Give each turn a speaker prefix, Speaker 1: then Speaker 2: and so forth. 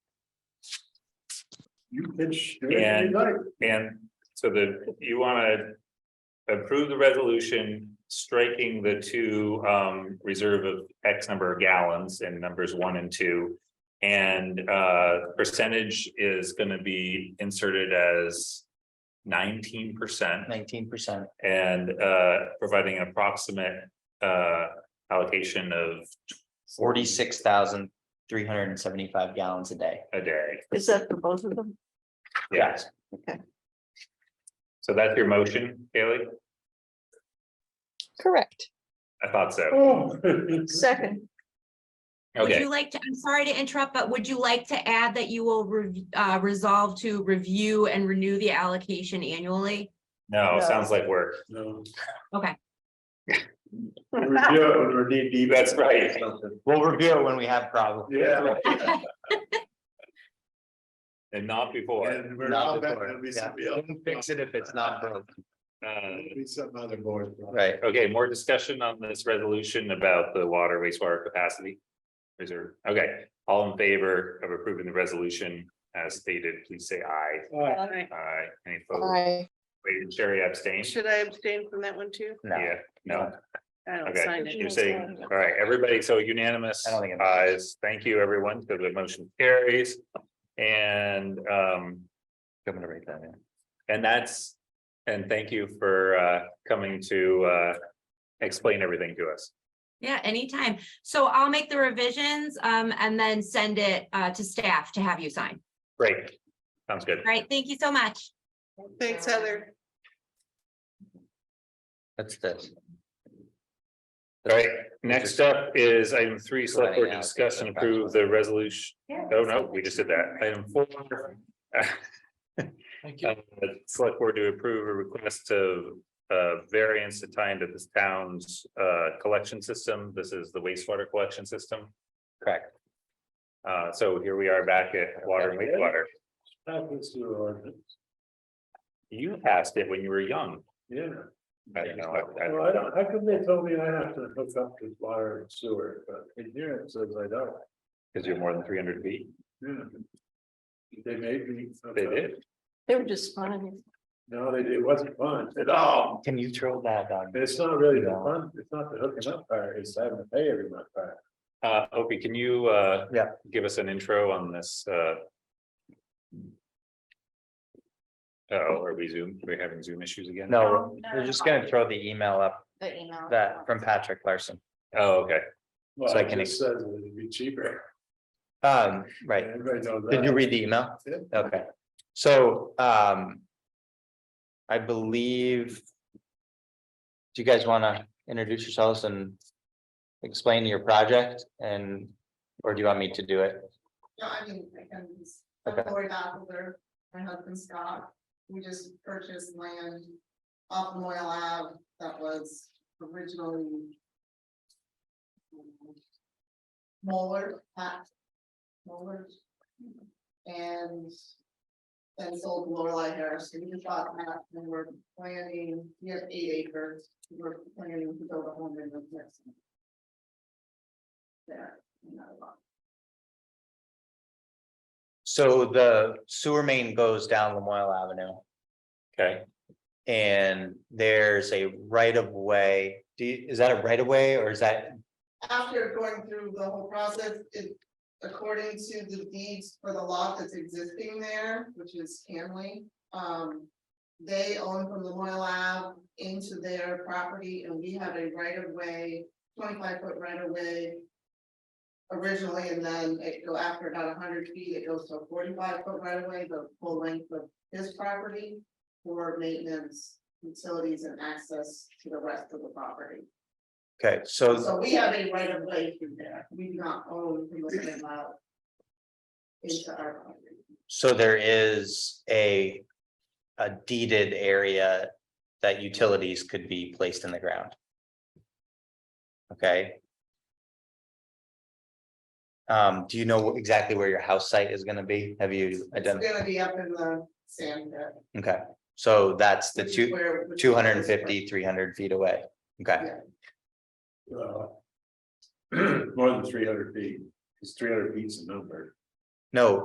Speaker 1: You pitch.
Speaker 2: And- And so the, you wanna approve the resolution striking the two um reserve of X number of gallons in numbers one and two. And uh percentage is gonna be inserted as nineteen percent
Speaker 3: nineteen percent,
Speaker 2: and uh providing an approximate uh allocation of
Speaker 3: forty-six thousand three hundred and seventy-five gallons a day.
Speaker 2: a day.
Speaker 4: Is that for both of them?
Speaker 2: Yes.
Speaker 4: Okay.
Speaker 2: So that's your motion, Kaylee?
Speaker 4: Correct.
Speaker 2: I thought so.
Speaker 1: Oh.
Speaker 4: Second,
Speaker 5: Would
Speaker 2: Okay.
Speaker 5: you like to, I'm sorry to interrupt, but would you like to add that you will rev- uh, resolve to review and renew the allocation annually?
Speaker 2: No,
Speaker 5: uh,
Speaker 4: No.
Speaker 2: sounds like work.
Speaker 1: No.
Speaker 5: Okay.
Speaker 1: Review it or need deep.
Speaker 2: That's right.
Speaker 3: We'll review it when we have problems.
Speaker 1: Yeah.
Speaker 2: And not before.
Speaker 1: And we're
Speaker 3: Not
Speaker 1: not back,
Speaker 3: before,
Speaker 1: it'll be
Speaker 3: yeah.
Speaker 1: somebody else.
Speaker 3: Don't Fix it if it's not broke,
Speaker 2: Uh,
Speaker 1: It'll Be some other board.
Speaker 3: right?
Speaker 2: Okay, more discussion on this resolution about the water wastewater capacity. Reserve. Okay, all in favor of approving the resolution as stated, please say aye.
Speaker 1: Alright,
Speaker 2: Aye. Any opposed?
Speaker 4: I,
Speaker 2: Wait, and Sherry abstain?
Speaker 6: Should I abstain from that one too?
Speaker 3: No,
Speaker 2: Yeah,
Speaker 3: I
Speaker 2: no,
Speaker 6: I don't
Speaker 2: okay.
Speaker 6: sign
Speaker 2: You're
Speaker 6: it.
Speaker 2: saying, all right, everybody, so unanimous.
Speaker 3: don't think. it matters.
Speaker 2: Ayes. Thank you, everyone. So the motion carries. And um,
Speaker 3: I'm gonna write that in.
Speaker 2: And that's, and thank you for uh coming to uh explain everything to us.
Speaker 5: Yeah, anytime. So I'll make the revisions um, and then send it uh, to staff to have you sign.
Speaker 2: Great. Sounds good.
Speaker 5: All right, thank you so much.
Speaker 6: Thanks, Heather.
Speaker 3: That's this.
Speaker 2: All right, next up is item three, select board to discuss and approve the resolution. Oh, no, we just did that. Item four.
Speaker 3: Thank
Speaker 2: Uh, Select board to approve a request of uh variance to tie into this town's uh collection system. This is the wastewater collection system.
Speaker 3: Correct.
Speaker 2: Uh, so here we are back at water and wastewater.
Speaker 1: That was your ordinance,
Speaker 2: You passed it when you were young.
Speaker 1: yeah.
Speaker 2: I don't know. I- I-
Speaker 1: Well, I don't, how come they told me I have to hook up to water and sewer, but in here it says I don't.
Speaker 2: Cause you're more than three hundred feet.
Speaker 1: Yeah. They made me.
Speaker 2: They did.
Speaker 4: they were just funny.
Speaker 1: No, they did, it wasn't fun at all.
Speaker 3: Can you throw that on?
Speaker 1: It's not really the
Speaker 3: No.
Speaker 1: fun, it's not the hooking up part, it's having to pay every month part.
Speaker 2: Uh, Opie, can you, uh?
Speaker 3: Yeah.
Speaker 2: Give us an intro on this, uh? Oh, are we Zoom? Are we having Zoom issues again?
Speaker 3: No,
Speaker 5: no,
Speaker 3: we're
Speaker 5: no,
Speaker 3: just
Speaker 5: no.
Speaker 3: gonna throw the email up
Speaker 5: The email.
Speaker 3: that from Patrick Larson.
Speaker 2: Oh, okay.
Speaker 1: Well,
Speaker 3: So I
Speaker 1: it
Speaker 3: can
Speaker 1: just says it'd be cheaper.
Speaker 3: Um, right.
Speaker 1: Everybody knows that.
Speaker 3: Did you read the email?
Speaker 1: Yeah.
Speaker 3: Okay, so um. I believe. Do you guys wanna introduce yourselves and explain your project and, or do you want me to do it?
Speaker 7: No, I mean, I can,
Speaker 3: Okay.
Speaker 7: I'm Lori Baffler, my husband Scott, we just purchased land off Moyle Ave that was originally um, Moller, Pat Moller, and then sold to Lorelei Harris, so we just bought that and we're planning, we have eight acres, we're planning to build a home in the next one. There, another lot.
Speaker 3: So the sewer main goes down Lemoyle Avenue
Speaker 2: Okay.
Speaker 3: and there's a right of way. Do you, is that a right of way or is that,
Speaker 7: after going through the whole process, it, according to the deeds for the lot that's existing there, which is Hanley, um, they own from the Moyle Lab into their property and we have a right of way, twenty-five foot right of way originally, and then it go after about hundred feet, it goes to a forty-five foot right of way, the full length of his property for maintenance, utilities and access to the rest of the property.
Speaker 3: okay, so,
Speaker 7: So we have a right of way through there, we do not own from the same lot Into our property,
Speaker 3: so there is a. A deeded area that utilities could be placed in the ground. Okay. Um, do you know exactly where your house site is gonna be? Have you
Speaker 7: it's
Speaker 3: identified?
Speaker 7: gonna be up in the sand pit.
Speaker 3: Okay, so that's the
Speaker 7: which is
Speaker 3: two,
Speaker 7: where- which is
Speaker 3: two hundred and
Speaker 7: where-
Speaker 3: fifty, three hundred feet away. Okay,
Speaker 1: Uh, More than three hundred feet, because three hundred feet's a number.
Speaker 3: no,